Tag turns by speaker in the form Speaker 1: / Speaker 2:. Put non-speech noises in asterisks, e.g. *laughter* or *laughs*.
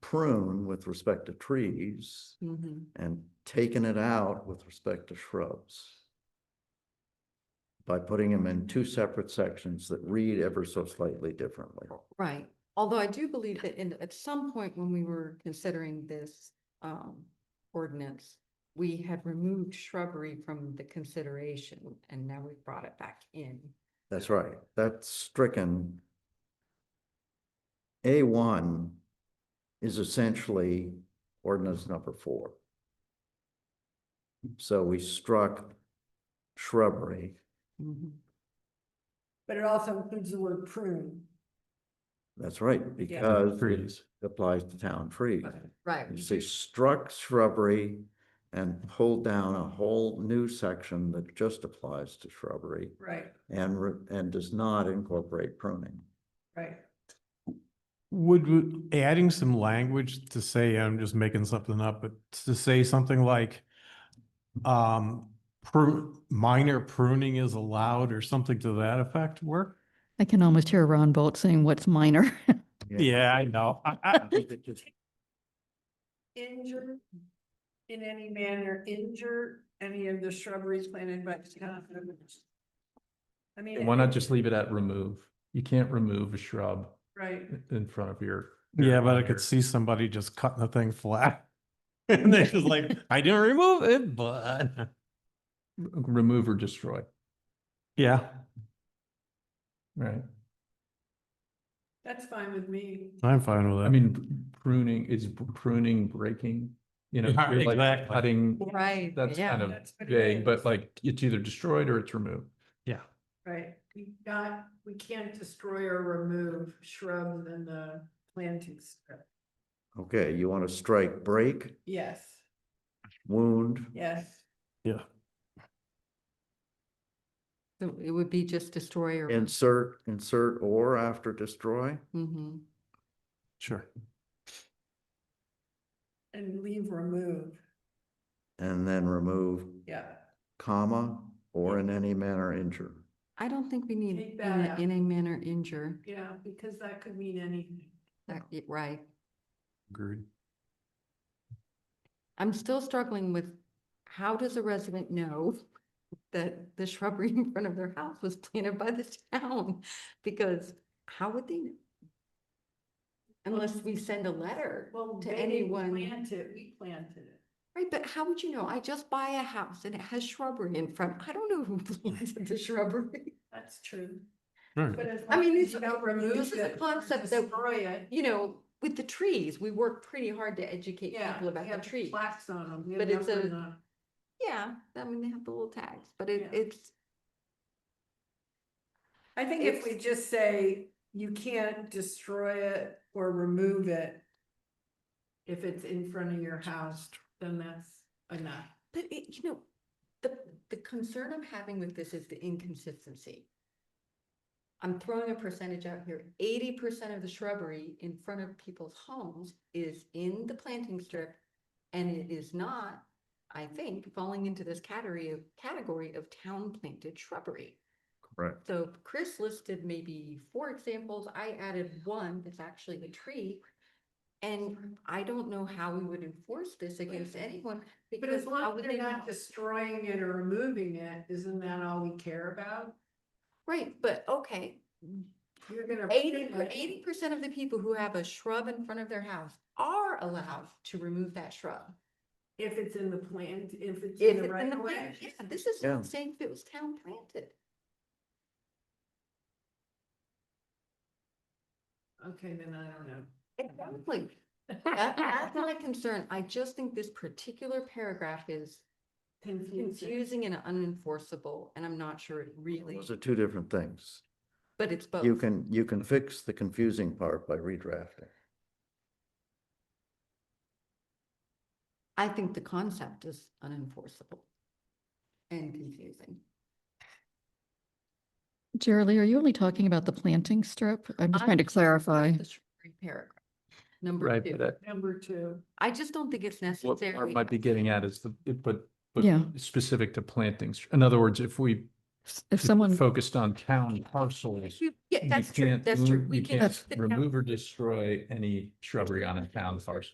Speaker 1: prune with respect to trees
Speaker 2: Mhm.
Speaker 1: and taken it out with respect to shrubs. By putting them in two separate sections that read ever so slightly differently.
Speaker 2: Right, although I do believe that in, at some point when we were considering this, um, ordinance, we had removed shrubbery from the consideration and now we've brought it back in.
Speaker 1: That's right, that's stricken. A one is essentially ordinance number four. So we struck shrubbery,
Speaker 3: Mm-hmm.
Speaker 4: But it also includes the word prune.
Speaker 1: that's right, because it
Speaker 5: Trees.
Speaker 1: applies to town trees.
Speaker 2: Right.
Speaker 1: You say struck shrubbery and pulled down a whole new section that just applies to shrubbery
Speaker 4: Right,
Speaker 1: and, re- and does not incorporate pruning.
Speaker 4: right.
Speaker 5: Would, w- adding some language to say, I'm just making something up, but to say something like, um, prune, minor pruning is allowed or something to that effect work?
Speaker 3: I can almost hear Ron Bolt saying
Speaker 4: *laughs*
Speaker 3: what's minor.
Speaker 5: Yeah, I know. I, I,
Speaker 4: Injure in any manner, injure any of the shrubberies planted by the town. I mean.
Speaker 6: Why not just leave it at remove? You can't remove a shrub
Speaker 4: Right,
Speaker 6: in front of your.
Speaker 5: yeah, but I
Speaker 6: your-
Speaker 5: could see somebody just cutting the thing flat. *laughs* And they're just like, I didn't remove it, but, *laughs*
Speaker 6: Remove or destroy,
Speaker 5: yeah,
Speaker 6: right?
Speaker 4: that's fine with me.
Speaker 5: I'm fine with it.
Speaker 6: I mean, pruning is pruning, breaking,
Speaker 5: *laughs*
Speaker 6: you know,
Speaker 5: Yeah,
Speaker 6: you're like
Speaker 5: exactly.
Speaker 6: cutting,
Speaker 2: Right,
Speaker 6: that's kind
Speaker 2: yeah,
Speaker 6: of
Speaker 4: That's what it
Speaker 6: vague,
Speaker 4: is.
Speaker 6: but like it's either destroyed or it's removed.
Speaker 4: Right, we not, we can't destroy or remove shrubs and the plantings.
Speaker 1: Okay, you want to strike break,
Speaker 4: Yes,
Speaker 1: wound,
Speaker 4: yes,
Speaker 2: So it would be just destroy or.
Speaker 1: insert, insert or after destroy?
Speaker 2: Mhm.
Speaker 5: Sure.
Speaker 4: and leave remove,
Speaker 1: And then remove
Speaker 4: yeah.
Speaker 1: comma or in any manner injure.
Speaker 2: I don't think we need
Speaker 4: Take
Speaker 2: in
Speaker 4: that
Speaker 2: a,
Speaker 4: out.
Speaker 2: in a manner injure,
Speaker 4: Yeah, because that could mean anything.
Speaker 2: That- y- right?
Speaker 5: Agreed.
Speaker 2: I'm still struggling with how does a resident know that the *laughs* shrubbery in front of their house was planted by the town? Because how would they know? Unless we send a letter,
Speaker 4: Well,
Speaker 2: to
Speaker 4: they
Speaker 2: anyone.
Speaker 4: Plant it, we planted it.
Speaker 2: right? But how would you know? I just buy a house and it has shrubbery in front. I don't know who *laughs* planted the shrubbery.
Speaker 4: That's true.
Speaker 5: Right.
Speaker 4: But as
Speaker 2: I
Speaker 4: long
Speaker 2: mean,
Speaker 4: as
Speaker 2: it's-
Speaker 4: you don't remove
Speaker 2: this is a
Speaker 4: it or
Speaker 2: concept that-
Speaker 4: Destroy it.
Speaker 2: You know, with the trees, we work pretty hard to educate
Speaker 4: Yeah.
Speaker 2: people
Speaker 4: we
Speaker 2: about the
Speaker 4: have
Speaker 2: trees.
Speaker 4: Plaques on them. we have
Speaker 2: But it's
Speaker 4: numbers
Speaker 2: a-
Speaker 4: on 'em.
Speaker 2: Yeah, I mean, they have the little tags, but it,
Speaker 4: Yeah.
Speaker 2: it's,
Speaker 4: I think if we
Speaker 2: It's-
Speaker 4: just say you can't destroy it or remove it. If it's in front of your house, then that's enough.
Speaker 2: But it, you know, the, the concern I'm having with this is the inconsistency. I'm throwing a percentage out here, eighty percent of the shrubbery in front of people's homes is in the planting strip. And it is not, I think, falling into this category of, category of town planted shrubbery.
Speaker 1: Correct.
Speaker 2: So Chris listed maybe four examples, I added one that's actually a tree. And I don't know how we would enforce this against anyone.
Speaker 4: But as
Speaker 2: because how
Speaker 4: long
Speaker 2: would
Speaker 4: as they're
Speaker 2: they
Speaker 4: not
Speaker 2: know?
Speaker 4: destroying it or removing it, isn't that all we care about?
Speaker 2: Right, but okay,
Speaker 4: You're gonna.
Speaker 2: eighty,
Speaker 4: prune it.
Speaker 2: eighty percent of the people who have a shrub in front of their house are allowed to remove that shrub.
Speaker 4: If it's in the plant, if it's
Speaker 2: If
Speaker 4: in
Speaker 2: it's
Speaker 4: the
Speaker 2: in
Speaker 4: right
Speaker 2: the
Speaker 4: of
Speaker 2: plan,
Speaker 4: way.
Speaker 2: yeah, this is
Speaker 1: Yeah.
Speaker 2: saying if it was town planted.
Speaker 4: Okay, then I don't know.
Speaker 2: Exactly. That- *laughs* That's not a concern, I just think this particular paragraph is
Speaker 4: Confusing.
Speaker 2: confusing and unenforceable, and I'm not sure it really,
Speaker 1: Those are two different things.
Speaker 2: but it's both.
Speaker 1: You can, you can fix the confusing part by redrafting.
Speaker 2: I think the concept is unenforceable and confusing.
Speaker 3: Jerry, are you only talking about the planting strip? I'm just
Speaker 2: I'm
Speaker 3: trying to
Speaker 2: just talking about
Speaker 3: clarify.
Speaker 2: the shrubbery Paragraph. Number
Speaker 6: Right,
Speaker 2: two.
Speaker 6: but
Speaker 4: Number two,
Speaker 2: I just don't think it's
Speaker 6: that- what
Speaker 2: necessary.
Speaker 6: Art might be getting at is the, it- but, but
Speaker 3: Yeah.
Speaker 6: specific to plantings. In other words, if we
Speaker 3: s- if someone,
Speaker 6: Focused on town parcels.
Speaker 2: You- Yeah,
Speaker 6: you
Speaker 2: that's true,
Speaker 6: can't
Speaker 2: that's true. *laughs*
Speaker 6: move-
Speaker 2: We
Speaker 6: You
Speaker 2: can
Speaker 6: can't
Speaker 2: sit down.
Speaker 6: remove or destroy any shrubbery on a town parcel.